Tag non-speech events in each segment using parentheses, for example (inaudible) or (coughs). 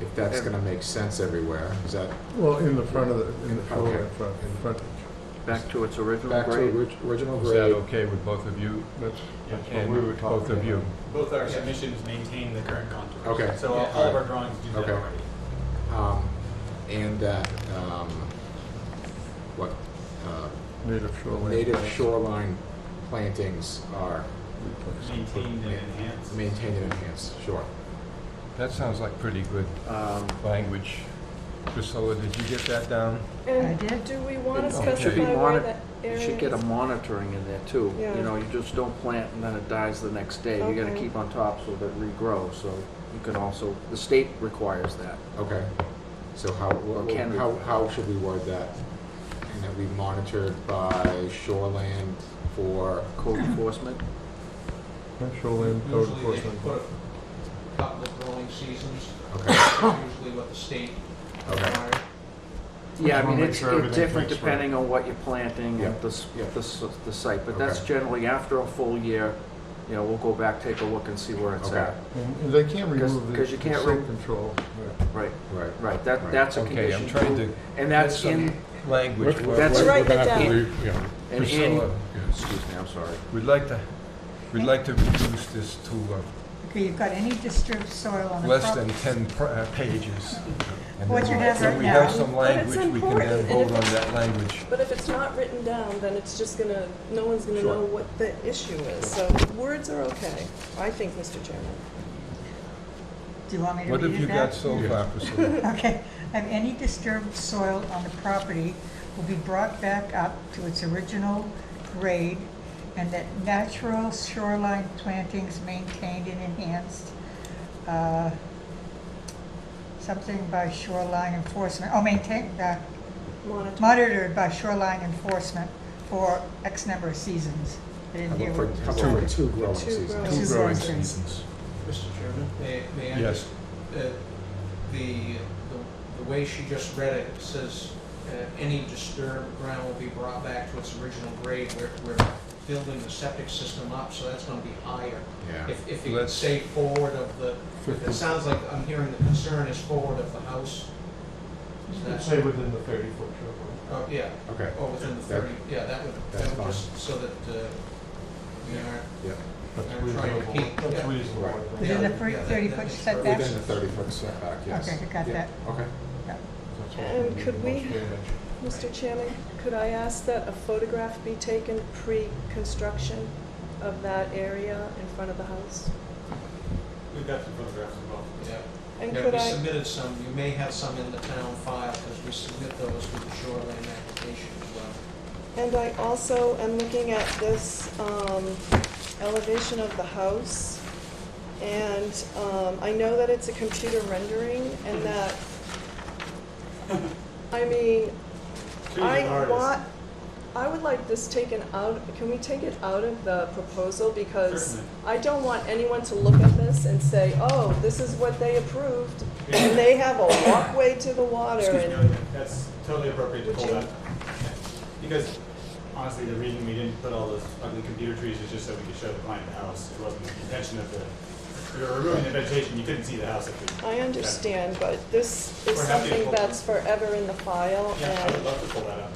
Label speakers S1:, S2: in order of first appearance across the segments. S1: if that's gonna make sense everywhere, is that
S2: Well, in the front of the, in the front,
S1: Okay.
S2: in front, in front.
S3: back to its original
S1: back to
S3: grade.
S1: orig- original
S4: Is that
S1: grade?
S4: okay with both of you?
S2: That's,
S1: That's what
S4: And
S1: we were
S4: both
S1: talking
S4: of you.
S5: Both our submissions maintain the current contours.
S1: Okay.
S5: So all all of our drawings do that
S1: Okay.
S5: already.
S1: Um, and that, um, what, uh,
S2: native shoreline.
S1: native shoreline plantings are
S5: Maintained and enhanced.
S1: maintained and enhanced, sure.
S4: That sounds like pretty good
S3: Um,
S4: language. Priscilla, did you get that down?
S6: And
S7: I did.
S6: do we want to
S3: It should be
S6: specify where
S3: moni-
S6: that area
S3: You
S6: is?
S3: should get a monitoring in there too.
S6: Yeah.
S3: You know, you just don't plant and then it dies the next day. You gotta
S6: Okay.
S3: keep on top so that it regrows, so you can also, the state requires that.
S1: Okay, so how, wha-
S3: Or can we-
S1: how, how should we word that? And that we monitored by shoreland for, (coughs)
S3: Code enforcement,
S2: Shoreline code
S8: Usually they put
S2: enforcement.
S8: a couple of
S1: (coughs)
S8: growing seasons,
S1: okay,
S8: usually what the state
S1: okay,
S8: requires.
S3: Yeah, I
S4: Just wanna
S3: mean,
S4: make
S3: it's,
S4: sure
S3: it's
S4: everything
S3: different
S4: fits right.
S3: depending on what you're planting
S1: Yeah,
S3: and the, s-
S1: yeah.
S3: the, s- the site, but that's
S1: Okay.
S3: generally after a full year, you know, we'll go back, take a look and see where it's
S1: Okay.
S3: at.
S2: And and they can't
S3: Because-
S2: remove the
S3: because you
S2: the
S3: can't
S2: silt
S3: re-
S2: control.
S3: Right,
S1: right.
S3: right,
S1: Right.
S3: that, that's a
S4: Okay,
S3: condition
S4: I'm trying
S3: too.
S4: to
S3: And that's in,
S4: language.
S3: We're- That's- we're
S6: Write that down.
S3: and in,
S4: Priscilla,
S3: excuse me, I'm sorry.
S4: we'd like to, we'd like to reduce this to uh,
S7: Okay, you've got any disturbed soil on the
S4: less than 10
S7: property.
S4: pr- uh, pages. And
S7: What
S4: then
S7: you have
S4: when
S7: right
S4: we
S7: now.
S4: have some
S6: But it's
S4: language, we can then
S6: important, and
S4: vote
S6: if
S4: on that language.
S6: But if it's not written down, then it's just gonna, no one's gonna
S4: Sure.
S6: know what the issue is. So words are okay, I think, Mr. Chairman.
S7: Do you want me to
S4: What
S7: read
S4: have you
S7: it
S4: got
S7: back?
S4: so far, Priscilla?
S7: (laughs) Okay, have any disturbed soil on the property will be brought back up to its original grade and that natural shoreline plantings maintained and enhanced, uh, something by shoreline enforcement, oh, maintained, uh,
S6: Monitor.
S7: monitored by shoreline enforcement for X number of seasons. I
S1: How
S7: didn't hear
S1: about for,
S7: what.
S1: how about for two growing
S6: Two
S1: seasons?
S6: growing
S7: Two
S4: Two
S7: growing
S4: growing
S7: seasons.
S4: seasons.
S8: Mr. Chairman? May, may I
S4: Yes.
S8: just, uh, the, uh, the- the way she just read it says, uh, any disturbed ground will be brought back to its original grade. We're, we're building the septic system up, so that's gonna be higher.
S1: Yeah,
S8: If, if you could
S4: Let's-
S8: say forward of the, it sounds like I'm hearing the concern is forward of the house. Is that-
S2: within the thirty-foot shoreline.
S8: Oh, yeah,
S1: okay,
S8: or within the
S1: That-
S8: thirty, yeah, that would,
S1: that's
S8: that would
S1: fine.
S8: just, so that, uh, we aren't
S1: yeah,
S2: That's
S8: I'm trying to keep-
S2: reasonable. That's
S8: yeah.
S2: reasonable.
S1: Right.
S2: I think.
S7: Within the
S8: Yeah,
S7: thir-
S8: yeah,
S7: thirty-foot
S8: that-
S7: setback?
S1: within the thirty foot setback, yes.
S7: Okay, got
S1: Yeah,
S7: that.
S1: Okay,
S2: That's all.
S6: And Um, could we-
S2: Most damage.
S6: Mr. Chairman, could I ask that a photograph be taken pre-construction of that area in front of the house?
S5: We've got some photographs as well.
S8: yeah.
S6: And
S8: Yeah,
S6: could
S8: we
S6: I,
S8: submitted some, you may have some in the town file, because we submit those with the shoreline application as well.
S6: and I also am looking at this um, elevation of the house, and um, I know that it's a computer rendering, and
S5: Mm-hmm.
S6: that, I mean,
S5: She's an
S6: I
S5: artist.
S6: want, I would like this taken out, can we take it out of the proposal? Because
S5: Certainly.
S6: I don't want anyone to look at this and say, oh, this is what they approved, and they have a walkway to the water,
S5: Excuse me,
S6: and,
S5: That's totally appropriate to
S6: Would
S5: pull
S6: you-
S5: that. Because honestly, the reason we didn't put all those ugly computer trees is just so we could show the client the house. It wasn't the intention of the, if we were removing the vegetation, you couldn't see the house. if we-
S6: I understand, but this is
S5: We're happy to
S6: something
S5: hold it.
S6: that's forever in the file,
S5: Yeah, I would
S6: and
S5: love to pull that up.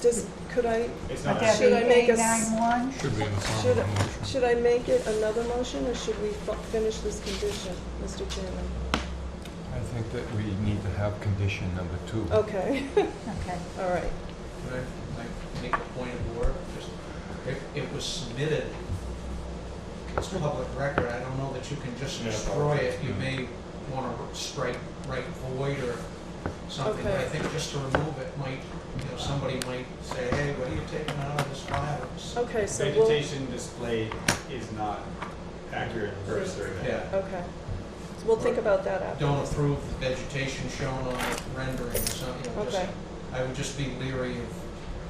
S6: does, could I,
S5: It's
S7: Would
S5: not.
S7: that be
S6: Should I make a
S7: A
S6: s-
S7: nine-one?
S4: Should be in the
S6: should, should I make it another motion, or should we fi- finish this condition, Mr. Chairman?
S4: I think that we need to have condition number two.
S6: Okay, (laughs)
S7: Okay.
S6: all right.
S8: Could I, like, make a point of order? Just- If it was submitted, it's public record, I don't know that you can just
S5: Yeah,
S8: destroy it. You
S4: yeah.
S8: may want to strike, write void or something.
S6: Okay.
S8: I think just to remove it might, you know, somebody might say, hey, what are you taking out of this file? It's-
S6: Okay, so we'll,
S5: Vegetation display is not accurate for a survey.
S8: Yeah,
S6: okay. So we'll think about that after.
S8: don't approve the vegetation shown on the rendering or something. you know, just-
S6: Okay.
S8: I would just be leery of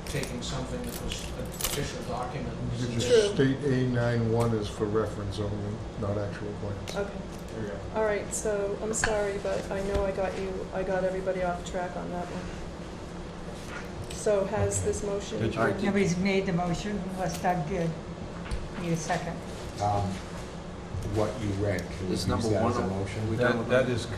S8: taking something that was an official document.
S2: You could
S6: True.
S2: just state A nine-one is for reference only, not actual plans.
S6: Okay,
S5: There we go.
S6: all right, so I'm sorry, but I know I got you, I got everybody off track on that one. So has this motion?
S4: Did you-
S3: All right.
S7: Nobody's made the motion unless Doug did. Need a second.
S1: um, what you read, can we use
S3: Is
S1: that
S3: number
S1: as a
S3: one-
S1: motion?
S3: we done
S4: That
S3: with
S4: that is